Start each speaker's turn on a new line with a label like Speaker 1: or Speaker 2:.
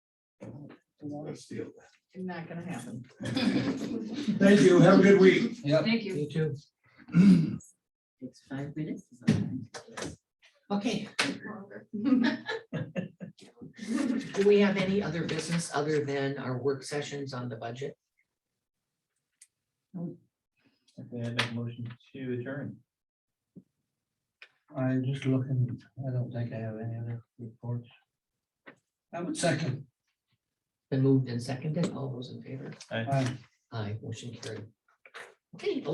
Speaker 1: Gonna steal
Speaker 2: Not gonna happen.
Speaker 1: that. Thank you. Have a good week.
Speaker 3: Yep.
Speaker 2: Thank you.
Speaker 3: You too.
Speaker 4: It's five minutes. is all right. Okay, do we have any other business other than our work sessions on the budget?
Speaker 5: Okay, I make a motion to adjourn.
Speaker 3: I'm just looking, I don't think I have any other reports. I would second.
Speaker 4: Been moved and seconded, all those in favor?
Speaker 3: Aye.
Speaker 4: Aye, motion carried. Okay,